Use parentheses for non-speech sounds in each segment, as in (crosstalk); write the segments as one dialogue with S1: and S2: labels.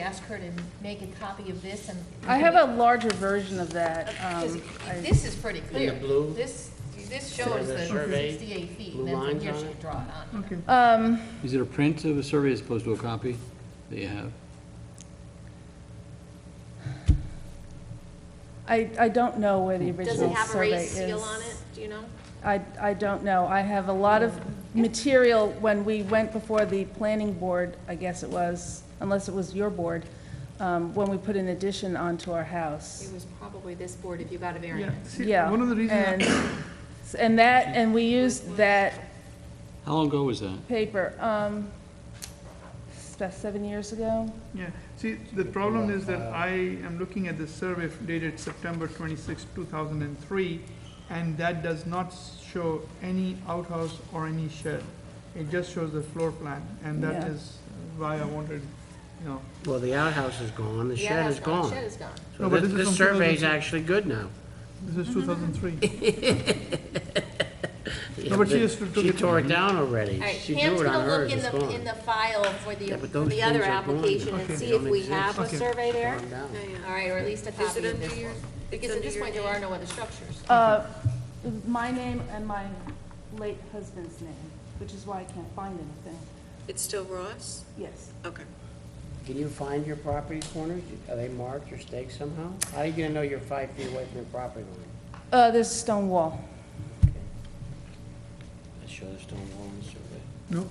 S1: ask her to make a copy of this and.
S2: I have a larger version of that.
S1: Because
S2: um, I-
S1: this is pretty clear.
S3: blue?
S1: This, this
S3: There
S1: shows
S3: the
S1: the
S3: survey,
S1: sixty-eight feet,
S3: blue
S1: and then from
S3: lines
S1: here
S3: on
S1: she
S3: it.
S1: can draw it on.
S4: Okay.
S2: Um,
S5: Is it a print of a survey as opposed to a copy that you have?
S2: I, I don't know where the
S6: Does it
S2: original survey is.
S6: have a raised seal on it? Do you know?
S2: I, I don't know. I have a lot of material, when we went before the planning board, I guess it was, unless it was your board, um, when we put an addition onto our house.
S6: It was probably this board if you got a
S4: Yeah,
S6: variance.
S4: see,
S2: Yeah.
S4: one of the
S2: and-
S4: reasons,
S2: And that, and we used that
S5: How long ago was that?
S2: paper, um, it's about seven years ago.
S4: yeah, see, the problem is that I am looking at the survey dated September 26, 2003, and that does not show any outhouse or any shed. It just shows the floor plan, and that
S2: Yeah.
S4: is why I wanted, you know,
S3: Well, the outhouse is gone, the
S6: The
S3: shed is
S6: outhouse
S3: gone.
S6: Shed is gone.
S4: No,
S3: So
S4: but
S3: this,
S4: this is
S3: this
S4: from
S3: survey's
S4: 2002.
S3: actually good now.
S4: this is 2003.
S3: Yeah,
S4: but she just took
S3: She
S4: it-
S3: tore it down already.
S6: All right,
S3: She drew
S6: Pam's
S3: it on
S6: gonna
S3: hers,
S6: look in
S3: it's
S6: the, in
S3: gone.
S6: the file for the,
S3: Yeah,
S6: for
S3: but those
S6: the other
S3: things are gone now.
S6: application
S4: Okay.
S6: and
S3: They
S6: see if
S3: don't
S6: we
S3: exist.
S6: have a
S4: Okay.
S6: survey there.
S3: Gone down.
S6: All right, or at least a
S7: Is
S6: copy
S7: it
S6: of
S7: under
S6: this
S7: your,
S6: one.
S7: it's
S6: Because at
S7: under
S6: this
S7: your
S6: point, there are
S7: name?
S6: no other structures.
S2: Uh, my name and my late husband's name, which is why I can't find anything.
S7: It's still Ross?
S2: Yes.
S7: Okay.
S3: Can you find your property corners? Are they marked or staked somehow? How are you gonna know you're five feet away from your property line?
S2: Uh, there's a stone wall.
S3: I show the stone wall in the survey.
S4: No,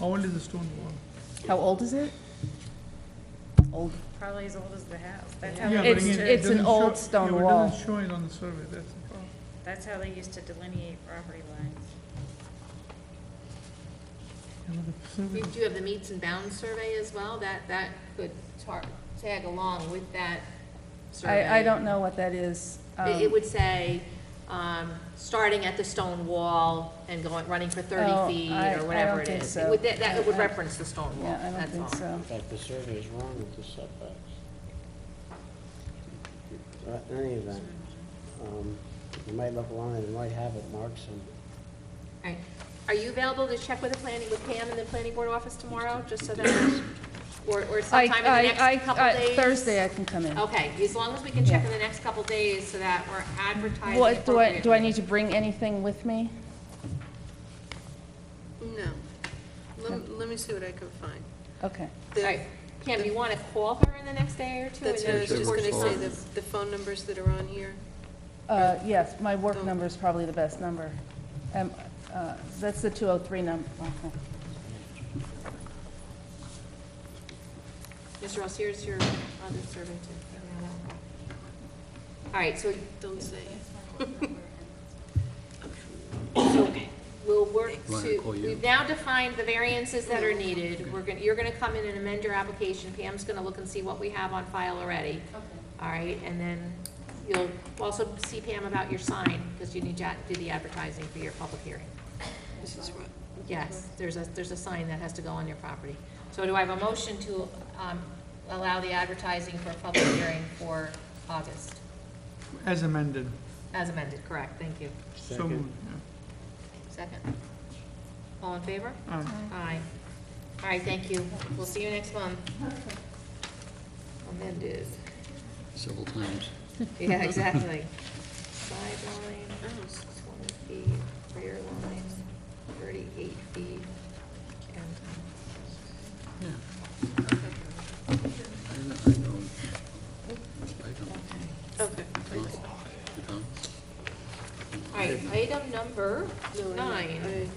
S4: how old is the stone wall?
S2: How old is it? Old.
S8: Probably as old as the house. That's
S4: Yeah,
S8: how,
S4: but
S8: they
S2: It's-
S8: used
S4: again,
S8: to-
S4: it
S2: it's an
S4: doesn't
S2: old
S4: show-
S2: stone
S4: yeah, but
S2: wall.
S4: It doesn't show it on the survey, that's the problem.
S8: that's how they used to delineate property lines.
S4: Yeah, but the survey
S6: You do have the meets and bounds survey as well, that, that could tar, tag along with that survey.
S2: I, I don't know what that is.
S6: It, it
S2: Um,
S6: would say, um, starting at the stone wall and going, running for
S2: Oh,
S6: thirty feet
S2: I- I
S6: or whatever
S2: don't
S6: it
S2: think
S6: is.
S2: so.
S6: It would, that, that
S2: I-
S6: would
S2: I-
S6: reference the stone wall,
S2: Yeah, I don't
S6: that's all.
S2: think so.
S3: In fact, the survey is wrong with the setbacks. Uh, In any event, um, you might look along and you might have it marked some.
S6: All right. Are you available to check with the planning, with Pam in the planning board office tomorrow, just so that, or, or
S2: I,
S6: sometime in the
S2: I,
S6: next
S2: I,
S6: couple
S2: I-
S6: days?
S2: Thursday I can come in.
S6: Okay, as long as we can check in the next couple days so that we're advertising
S2: What, do I, do I
S6: appropriately.
S2: need to bring anything with me?
S7: No. Let, let me see what I can find.
S2: Okay.
S7: The-
S6: All right, Pam, do you want to call her in the next day or two?
S7: That's
S6: and then
S7: what I was just
S6: report
S7: gonna
S6: to
S7: say,
S6: us?
S7: the, the phone numbers that are on here.
S2: Uh, yes, my work number is probably the best number. Um, uh, that's the two oh three number. Okay.
S6: Mr. Ross, here's your other survey too. All right, so
S7: Don't say.
S6: we'll work
S5: Why don't I
S6: to,
S5: call you?
S6: we've now defined the variances that are needed. We're gonna, you're gonna come in and amend your application. Pam's gonna look and see what we have on file already. All right, and then you'll also see Pam about your sign, because you need to do the advertising for your public hearing.
S7: This is Ross.
S6: Yes, there's a, there's a sign that has to go on your property. So do I have a motion to um, allow the advertising for a public hearing for August?
S4: As amended,
S6: As amended, correct, thank you.
S4: so moved, yeah.
S6: Second. All in favor?
S4: Aye.
S6: Aye. All right, thank you. We'll see you next month. Amended.
S5: Several times.
S6: (laughs) Yeah, exactly. Sideline, oh, it's twenty feet, rear line, thirty-eight feet. and-
S5: I don't- I don't- I don't-
S6: Okay.
S7: Okay.
S5: you don't?
S6: All right, item number
S7: No, I-
S6: nine.
S7: I- I did-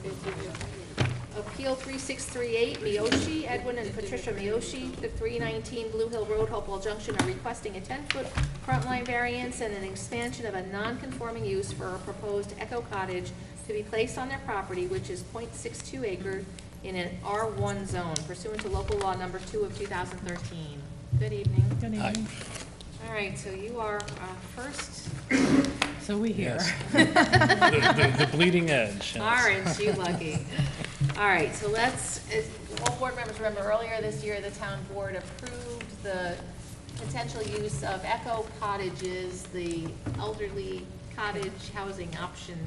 S6: Appeal 3638, Miyoshi, Edwin and Patricia Miyoshi, the 319 Blue Hill Road, Hopewell Junction, are requesting a 10-foot front line variance and an expansion of a non-conforming use for a proposed Echo Cottage to be placed on their property, which is .62 acre in an R1 zone pursuant to local law number 2 of 2013. Good evening. Good evening. All right, so you are uh, first
S9: Yes. The- The the bleeding edge. yes.
S6: Orange, you lucky. All right, so let's, as all board members remember, earlier this year, the town board approved the potential use of Echo cottages, the elderly cottage housing option